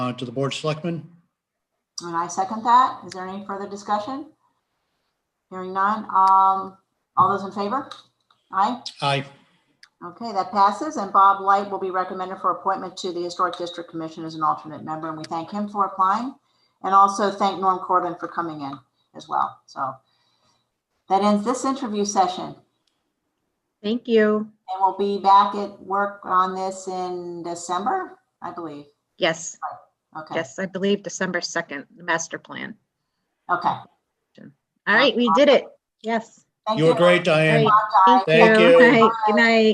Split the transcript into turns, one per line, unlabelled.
uh, to the Board of Selectmen.
And I second that. Is there any further discussion? Hearing none. Um, all those in favor? Aye.
Aye.
Okay, that passes. And Bob Light will be recommended for appointment to the Historic District Commission as an alternate member, and we thank him for applying. And also thank Norm Corbin for coming in as well. So that ends this interview session.
Thank you.
And we'll be back at work on this in December, I believe.
Yes,
Okay,
yes, I believe December 2nd, the master plan.
okay.
All right, we did it. Yes.
Thank
You were great, Diane.
Great.
Bye, guys.
Thank you.
All right, Good night.